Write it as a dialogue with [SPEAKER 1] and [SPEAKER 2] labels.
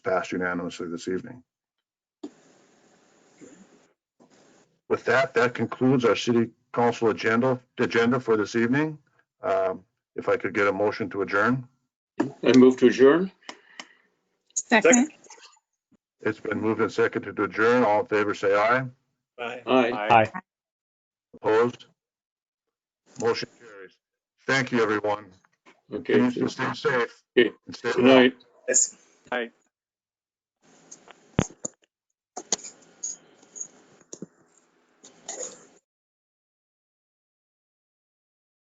[SPEAKER 1] passed unanimously this evening. With that, that concludes our city council agenda, agenda for this evening. Um, If I could get a motion to adjourn,
[SPEAKER 2] I move to adjourn.
[SPEAKER 3] Second.
[SPEAKER 1] it's been moved and seconded to adjourn. All in favor, say aye.
[SPEAKER 4] Aye.
[SPEAKER 2] Aye.
[SPEAKER 1] Opposed? Motion carries. Thank you, everyone.
[SPEAKER 2] Okay.
[SPEAKER 1] Please
[SPEAKER 2] Good
[SPEAKER 1] stay safe.
[SPEAKER 2] Okay.
[SPEAKER 1] and stay well.
[SPEAKER 2] night.
[SPEAKER 4] Yes.